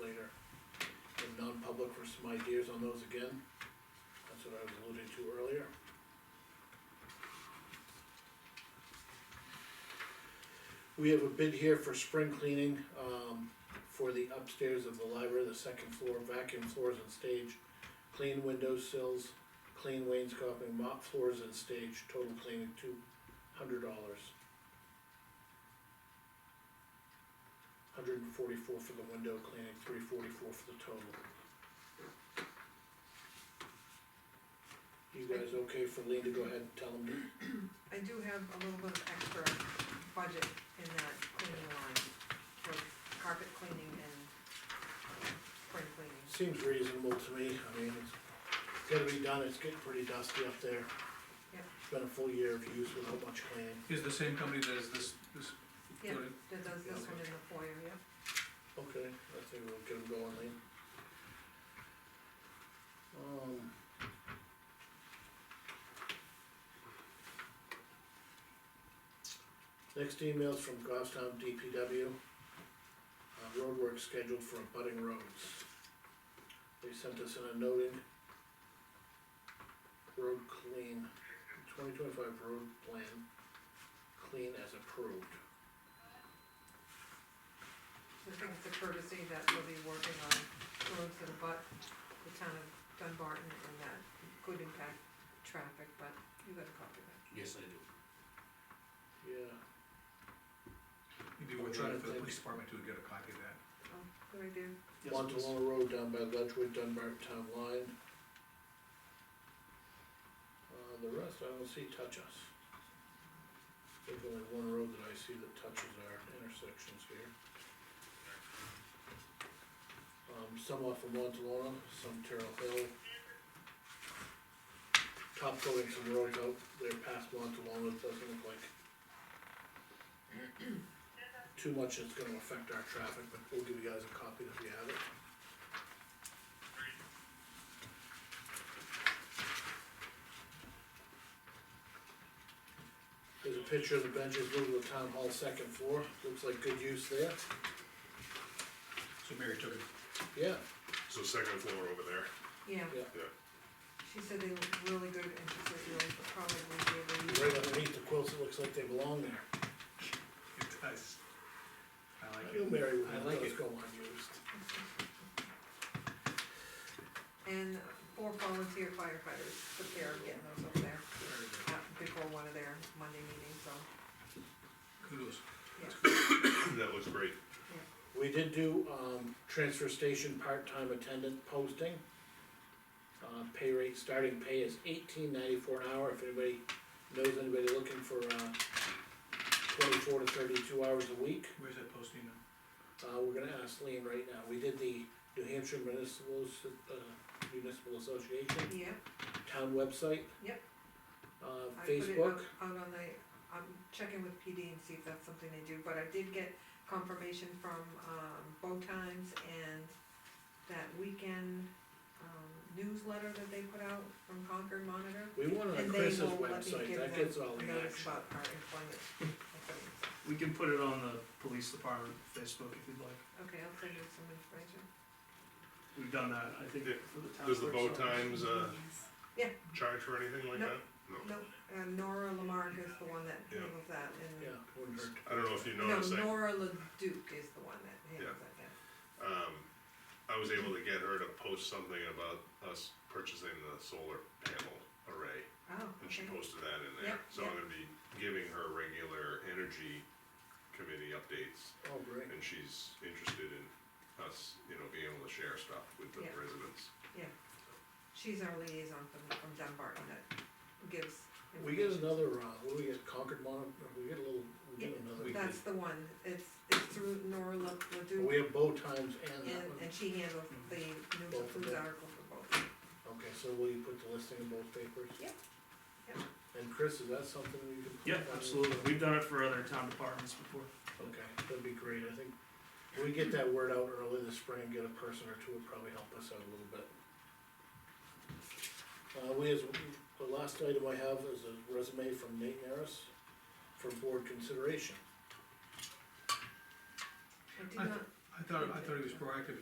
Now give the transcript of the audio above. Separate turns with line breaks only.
later in non-public for some ideas on those again. That's what I was alluding to earlier. We have a bid here for spring cleaning, um, for the upstairs of the library, the second floor, vacuum floors and stage, clean window sills, clean wainscoting, mop floors and stage, total cleaning two hundred dollars. Hundred and forty-four for the window cleaning, three forty-four for the total. You guys okay for Lean to go ahead and tell them?
I do have a little bit of extra budget in that cleaning line, for carpet cleaning and spring cleaning.
Seems reasonable to me, I mean, it's gotta be done, it's getting pretty dusty up there.
Yeah.
It's Been a full year of use without much cleaning,
Is the same company that is this, this,
Yeah,
Good.
that does this one in the foyer, yeah.
okay, I think we'll get them going, Lean. Um. Next email's from Goffstown DPW. Uh, road work scheduled for abutting roads. They sent us in a noting. Road clean, twenty twenty-five road plan, clean as approved.
I think it's a courtesy that we'll be working on roads that abut the town of Dunbarton and that could impact traffic, but you got a copy of that.
Yes, I do.
Yeah,
maybe we're trying for the police department to get a copy of that.
Oh, good idea.
Montalona Road down by Ledgewood, Dunbar Town Line. Uh, the rest I don't see touch us. There's only one road that I see that touches our intersections here. Um, some off of Montalona, some Terrell Hill. Top going some roads out there past Montalona, it doesn't look like too much that's gonna affect our traffic, but we'll give you guys a copy if you have it. There's a picture of the benches moved to the town hall second floor, looks like good use there,
So Mary took it,
yeah,
So second floor over there,
Yeah,
Yeah.
yeah.
she said they look really good and she said you'll probably be able to use
right underneath the quilts, it looks like they belong there.
it does. I like
You
it.
Mary,
I
I
like
like those
it.
go unused.
And four volunteer firefighters prepare getting those up there
Very good.
uh, before one of their Monday meetings, so,
Kudos.
yeah.
That looks great.
We did do, um, transfer station part-time attendant posting. Uh, pay rate, starting pay is eighteen ninety-four an hour, if anybody knows anybody looking for, uh, twenty-four to thirty-two hours a week,
Where's that posting now?
uh, we're gonna ask Lean right now, we did the New Hampshire Municipal, Asso- uh, Municipal Association,
Yeah,
town website.
Yep.
Uh,
I put it
Facebook,
out out on the, I'm checking with PD and see if that's something they do, but I did get confirmation from, um, Bow Times and that weekend, um, newsletter that they put out from Concord Monitor.
we want it on
And they
Chris's
will let me
website,
give
that
them
gets all the
notice
action.
About our employment. openings.
We can put it on the police department Facebook if you'd like.
Okay, I'll send you some information.
We've done that, I think, for the town.
Does the bow
clerk's office.
times, uh,
Yeah.
charge for anything like
No.
that?
No, uh, Nora Lamarck is the one that
Yeah.
handles that,
Yeah,
and,
wouldn't hurt.
I don't know if you
no,
noticed, I,
Nora Leduc is the one that handles that, yeah.
um, I was able to get her to post something about us purchasing the solar panel array.
Oh,
And she
okay,
posted that in there,
Yeah,
so I'm
yeah.
gonna be giving her regular energy committee updates.
Oh, great.
And she's interested in us, you know, being able to share stuff with the
Yeah.
residents.
she's our liaison from, from Dunbarton that gives
We get
information.
another, uh, what do we get, Concord Mon, we get a little, we get another.
That's the one, it's, it's through Nora Le-
We
Leduc,
have bow times and
and,
that one,
and she handles the news,
Both of
news
them.
article for both.
okay, so will you put the listing in both papers?
Yep, yep.
And Chris, is that something you can? put
Yeah,
on-
absolutely. We've done it for other town departments before.
Okay, that'd be great, I think, we get that word out early this spring, get a person or two would probably help us out a little bit. Uh, we, as, the last item I have is a resume from Nate Maris for board consideration.
I did
I-
not
I thought, I thought he was proactive